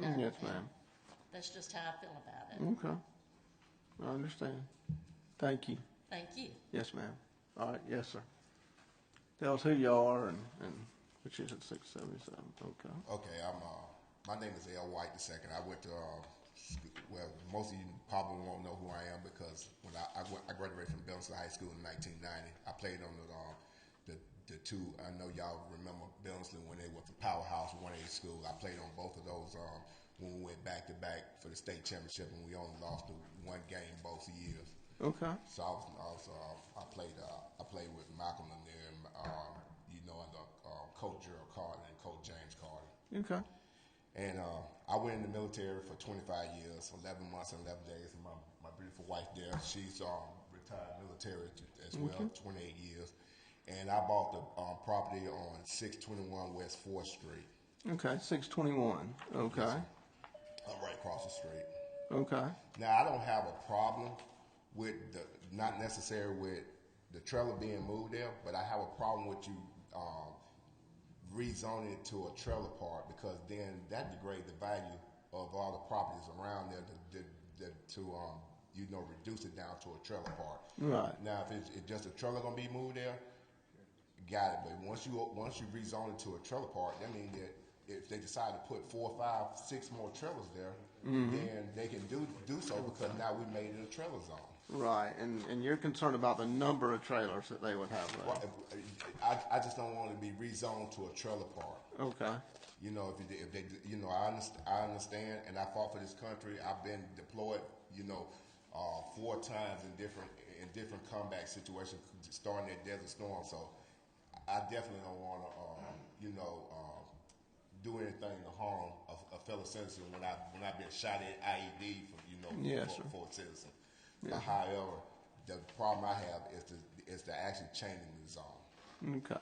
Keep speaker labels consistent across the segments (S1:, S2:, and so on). S1: that.
S2: Yes, ma'am.
S1: That's just how I feel about it.
S2: Okay. I understand. Thank you.
S1: Thank you.
S2: Yes, ma'am. All right, yes, sir. Tell us who y'all are and, and which is at six seventy-seven, okay.
S3: Okay, I'm. Uh, my name is L. White the second. I went to. Uh, sc- well, most of you probably won't know who I am because when I, I, went, I graduated from Bellinsville High School in 1990, I played on the uh, the, the two. I know y'all remember Bellinsville when they was the powerhouse 1A school. I played on both of those um, when we went back to back for the state championship, and we only lost the one game both years.
S2: Okay,
S3: So I was also uh, I played uh, I played with Malcolm in there, and, um, you know, and the, uh, Coach Gerald Carter and Coach James Carter.
S2: okay,
S3: And uh, I went in the military for 25 years, 11 months and 11 days. And my, my beautiful wife there, she's um, retired military t- as well, 28 years. And I bought the um, property on 621 West 4th Street,
S2: okay, six twenty-one, okay,
S3: uh, right across the street.
S2: okay,
S3: Now, I don't have a problem with the, not necessarily with the trailer being moved there, but I have a problem with you um, rezoning it to a trailer park because then that degrades the value of all the properties around there to, to, to, to um, you know, reduce it down to a trailer park.
S2: Right.
S3: Now, if it's, it's just a trailer gonna be moved there, Got it. But once you once you rezone it to a trailer park, that means that if they decide to put four, five, six more trailers there, then they can do do so because now we made it a trailer zone.
S2: right, and, and you're concerned about the number of trailers that they would have there,
S3: I, I just don't want to be rezoned to a trailer park.
S2: okay,
S3: You know, if, you- if they, you know, I understand, I understand, and I fought for this country. I've been deployed, you know, uh, four times in different in different combat situations, starting at Desert Storm. So, I definitely don't want to, um, you know, um, do anything to harm a, a fellow citizen when I when I've been shot at IED for you know
S2: Yes,
S3: for,
S2: sir.
S3: for a citizen. But however, the problem I have is to is to actually changing the zone
S2: okay,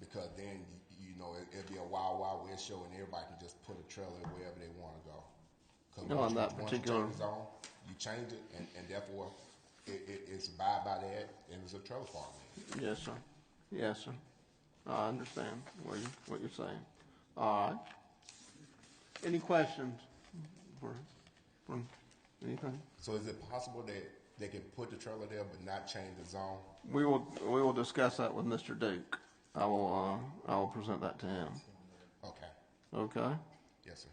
S3: because then y- you know it, it'd be a wild wild west show and everybody can just put a trailer wherever they want to go. 'Cause
S2: No, on
S3: once you-
S2: that
S3: once you
S2: particular-
S3: change the zone, you change it, and, and therefore it, it, it's abide by that, and it's a trailer park. now.
S2: yes, sir, yes, sir. I understand what you, what you're saying, all right. Any questions for, for anything?
S3: So is it possible that they can put the trailer there but not change the zone?
S2: We will, we will discuss that with Mr. Duke. I will, uh, I will present that to him.
S3: Okay,
S2: Okay?
S3: yes, sir.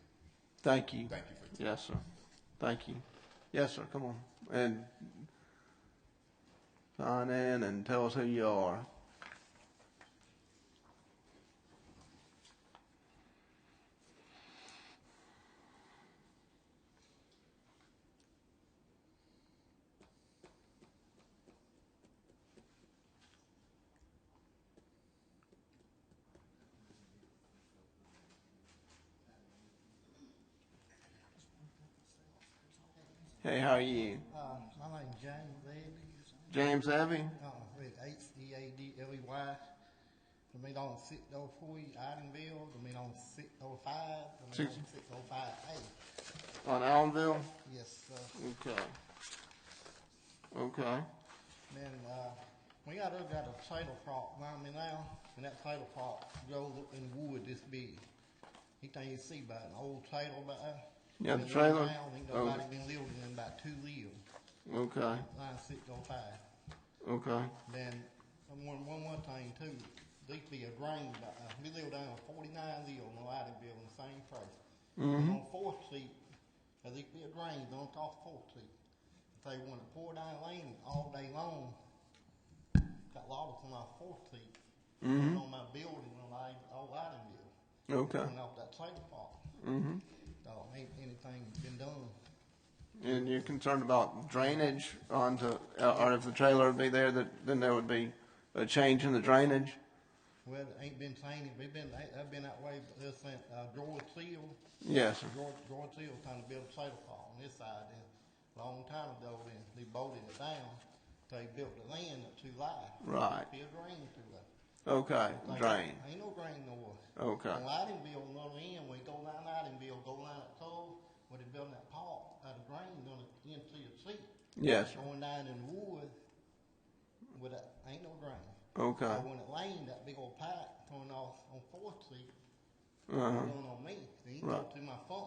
S2: Thank you.
S3: Thank you for your time.
S2: Yes, sir. Thank you. Yes, sir, come on. And sign in and tell us who you are. Hey, how are you?
S4: Uh, my name's James Levy,
S2: James Abbey?
S4: uh, with H E A D L E Y. To meet on six oh four, Idenville, to meet on six oh five, to meet on
S2: Six-
S4: six oh five
S2: On Allenville?
S4: A. Yes, sir.
S2: Okay. Okay.
S4: Then, uh, we got, uh, got a trailer park around me now, and that trailer park grows up in wood this big. Anything you see about an old trailer about there.
S2: Yeah, the
S4: Been laid
S2: trailer-
S4: down, Ain't
S2: oh.
S4: nobody been living in about two years,
S2: Okay.
S4: line six oh five.
S2: Okay.
S4: Then and one, one more thing too, these be a drain, uh, we live down on forty-nine Lee on Loudoun on the same place. And On Fourth Street, there these be a drain on top of Fourth Street. If they wanna pour down lane all day long, got logs on our Fourth Street. and On my building on I, old Loudounville.
S2: Okay.
S4: And off that trailer park. Mm-hmm. So ain't anything been done.
S2: And you're concerned about drainage onto, uh, or if the trailer would be there, that, then there would be a change in the drainage?
S4: Well, it ain't been changed, we've been, I've been that way ever since, uh, George Seal
S2: Yes, sir.
S4: George, George Hill trying to build a trailer park on this side, and a long time ago, then they bolted it down, they built the land up too high.
S2: Right.
S4: Be a drain through there.
S2: Okay,
S4: Like,
S2: drain.
S4: Ain't no drain nowhere.
S2: Okay.
S4: On Loudounville, on the other end, when you go down Loudounville, go down that toll, where they building that park, uh, the drain gonna into your seat.
S2: Yes, sir.
S4: Going down in the wood, with that, ain't no drain.
S2: Okay.
S4: So when it rained, that big old pipe coming off on Fourth Street,
S2: Uh-huh.
S4: going on me, then you go
S2: Right.
S4: through my phone,